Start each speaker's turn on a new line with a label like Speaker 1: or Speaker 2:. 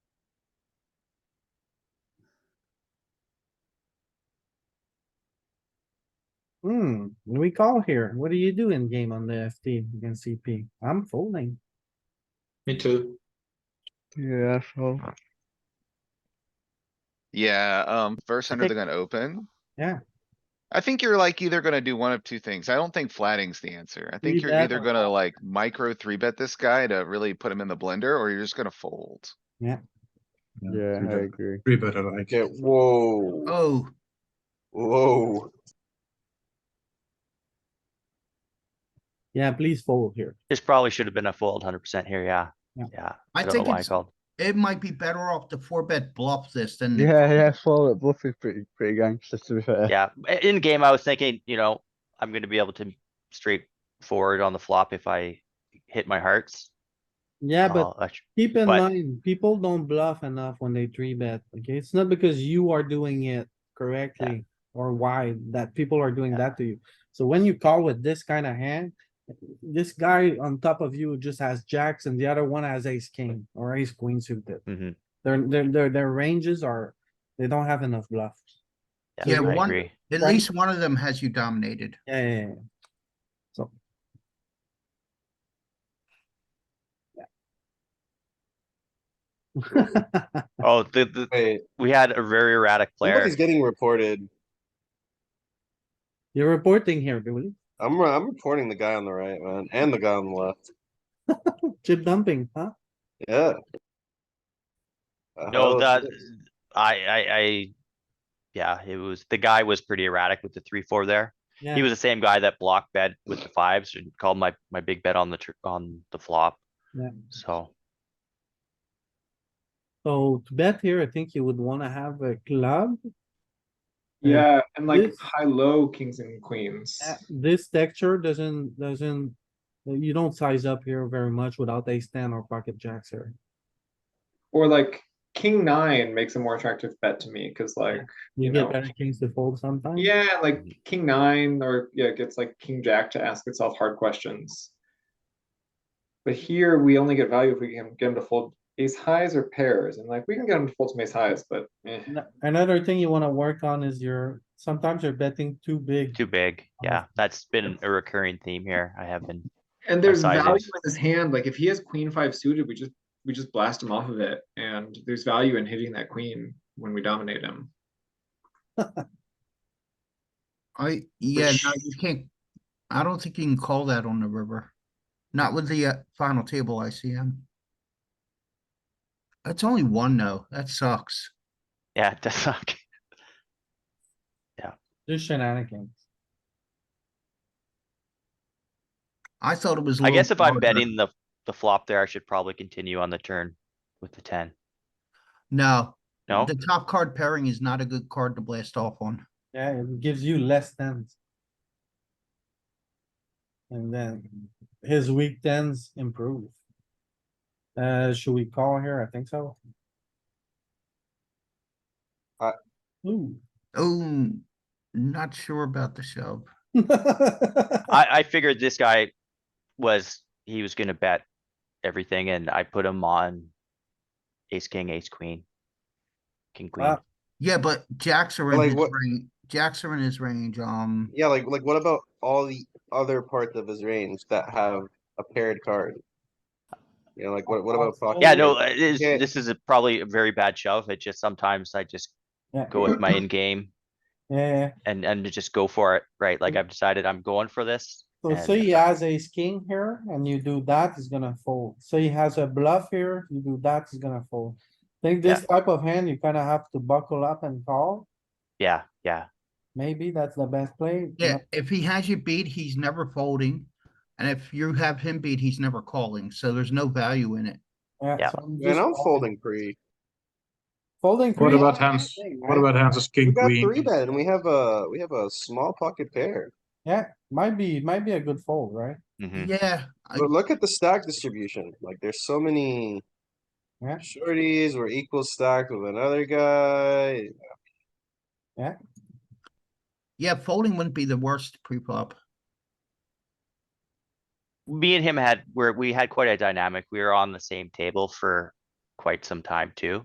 Speaker 1: Hmm, we call here. What do you do in game on the FT against CP? I'm folding.
Speaker 2: Me too.
Speaker 3: Yeah, so
Speaker 4: Yeah, um, first under the gun open.
Speaker 1: Yeah.
Speaker 4: I think you're like either gonna do one of two things. I don't think flatting's the answer. I think
Speaker 1: Three
Speaker 4: you're
Speaker 1: bet
Speaker 4: either
Speaker 1: or-
Speaker 4: gonna like micro three bet this guy to really put him in the blender, or you're just gonna fold.
Speaker 3: yeah,
Speaker 2: three
Speaker 3: I
Speaker 2: bet-
Speaker 3: agree.
Speaker 2: Three better like.
Speaker 5: Okay, whoa.
Speaker 6: Oh,
Speaker 5: Whoa.
Speaker 1: Yeah, please fold here.
Speaker 7: This probably should have been a fold hundred percent here, yeah,
Speaker 1: Yeah.
Speaker 7: yeah.
Speaker 6: I
Speaker 7: don't know
Speaker 6: think
Speaker 7: why I
Speaker 6: it's-
Speaker 7: called.
Speaker 6: it might be better off to four bet bluff this than.
Speaker 3: Yeah, yeah, follow it. Bluff is pretty, pretty gangster to be fair.
Speaker 7: Yeah, i- in game, I was thinking, you know, I'm gonna be able to straight forward on the flop if I hit my hearts.
Speaker 1: Yeah,
Speaker 7: and
Speaker 1: but
Speaker 7: I'll actu-
Speaker 1: keep in
Speaker 7: Oh, but-
Speaker 1: mind, people don't bluff enough when they three bet. Okay, it's not because you are doing it correctly or why that people are doing
Speaker 7: Yeah.
Speaker 1: that to you. So when you call with this kind of hand, this guy on top of you just has jacks and the other one has ace king or ace queen suited.
Speaker 7: Mhm.
Speaker 1: Their, their, their, their ranges are, they don't have enough bluffs.
Speaker 6: Yeah,
Speaker 7: Yeah, I
Speaker 6: one-
Speaker 7: agree.
Speaker 6: At
Speaker 1: Right.
Speaker 6: least one of them has you dominated.
Speaker 1: Yeah, yeah, yeah. So. Yeah.
Speaker 7: Oh, the, the,
Speaker 5: Wait,
Speaker 7: we had a very erratic player.
Speaker 5: somebody's getting reported.
Speaker 1: You're reporting here, Billy.
Speaker 5: I'm, re- I'm reporting the guy on the right, man, and the guy on the left.
Speaker 1: Chip dumping, huh?
Speaker 5: Yeah.
Speaker 7: No,
Speaker 5: Oh,
Speaker 7: that,
Speaker 5: shit.
Speaker 7: I, I, I, yeah, it was, the guy was pretty erratic with the three, four there. He
Speaker 1: Yeah,
Speaker 7: was the same guy that blocked bet with the fives and called my, my big bet on the, tr- on the flop.
Speaker 1: Yeah.
Speaker 7: So,
Speaker 1: so to bet here, I think you would wanna have a club. And
Speaker 8: Yeah, and like
Speaker 1: this-
Speaker 8: high low kings and queens.
Speaker 1: uh, This texture doesn't, doesn't, you don't size up here very much without ace ten or pocket jacks here.
Speaker 8: Or like king nine makes a more attractive bet to me because like
Speaker 1: You
Speaker 8: You
Speaker 1: get
Speaker 8: know.
Speaker 1: better kings to fold sometimes.
Speaker 8: yeah, like king nine or yeah, it gets like king jack to ask itself hard questions. But here we only get value if we can get him to fold ace highs or pairs, and like we can get him to fold some ace highs, but eh.
Speaker 1: Ano- Another thing you wanna work on is your, sometimes you're betting too big.
Speaker 7: too big.
Speaker 1: Oh.
Speaker 7: Yeah, that's been a recurring theme here. I have been,
Speaker 8: And there's
Speaker 7: size
Speaker 8: value
Speaker 7: is.
Speaker 8: in this hand, like if he has queen five suited, we just, we just blast him off of it, and there's value in hitting that queen when we dominate him.
Speaker 6: I, yeah, no, you can't, I don't think you can call that on the river. Not with the uh, final table ICM. That's only one though, that sucks.
Speaker 7: yeah, it does suck.
Speaker 1: Just shenanigans.
Speaker 6: I thought it was. a
Speaker 7: I
Speaker 6: little
Speaker 7: guess if I'm
Speaker 6: broader.
Speaker 7: betting the, the flop there, I should probably continue on the turn with the ten.
Speaker 6: No,
Speaker 7: No?
Speaker 6: the top card pairing is not a good card to blast off on.
Speaker 1: Yeah, it gives you less tens. And then his weak tens improve. Uh, should we call here? I think so.
Speaker 7: Uh,
Speaker 5: I-
Speaker 1: Ooh.
Speaker 6: Oh, not sure about the shove.
Speaker 7: I, I figured this guy was, he was gonna bet everything and I put him on ace, king, ace, queen. King, queen.
Speaker 1: Wow.
Speaker 6: Yeah, but jacks are in
Speaker 5: Like
Speaker 6: his
Speaker 5: what-
Speaker 6: range. Jacks are in his range. Um,
Speaker 5: Yeah, like, like what about all the other parts of his range that have a paired card? You know, like what, what about? pocket
Speaker 7: Yeah,
Speaker 5: range?
Speaker 7: no, uh, it is,
Speaker 5: Yeah.
Speaker 7: this is a- probably a very bad shove. It just sometimes I just
Speaker 1: Yeah.
Speaker 7: go with my in-game
Speaker 1: Yeah,
Speaker 7: and, and just go for it, right? Like I've decided I'm going for this.
Speaker 1: so
Speaker 7: and-
Speaker 1: say he has ace king here and you do that, he's gonna fold. So he has a bluff here, you do that, he's gonna fold. Think this type of hand, you kinda have to buckle up and call.
Speaker 7: Yeah, yeah.
Speaker 1: Maybe that's the best play.
Speaker 6: yeah, if he has you beat, he's never folding. And if you have him beat, he's never calling. So there's no value in it.
Speaker 7: Yeah.
Speaker 1: so I'm
Speaker 5: Man,
Speaker 1: just
Speaker 5: I'm folding pre.
Speaker 1: Folding.
Speaker 2: What
Speaker 1: three
Speaker 2: about
Speaker 1: is the
Speaker 2: hands?
Speaker 1: thing,
Speaker 2: What
Speaker 1: right?
Speaker 2: about hands as
Speaker 5: We
Speaker 2: king,
Speaker 5: got three
Speaker 2: queen?
Speaker 5: bet and we have a, we have a small pocket pair.
Speaker 1: Yeah, might be, might be a good fold, right?
Speaker 6: Mm-hmm.
Speaker 7: mhm.
Speaker 6: Yeah, I-
Speaker 5: But look at the stack distribution, like there's so many.
Speaker 1: Yeah.
Speaker 5: Shorties were equal stacked with another guy.
Speaker 6: yeah, folding wouldn't be the worst pre-flop.
Speaker 7: me and him had where we had quite a dynamic. We were on the same table for quite some time too.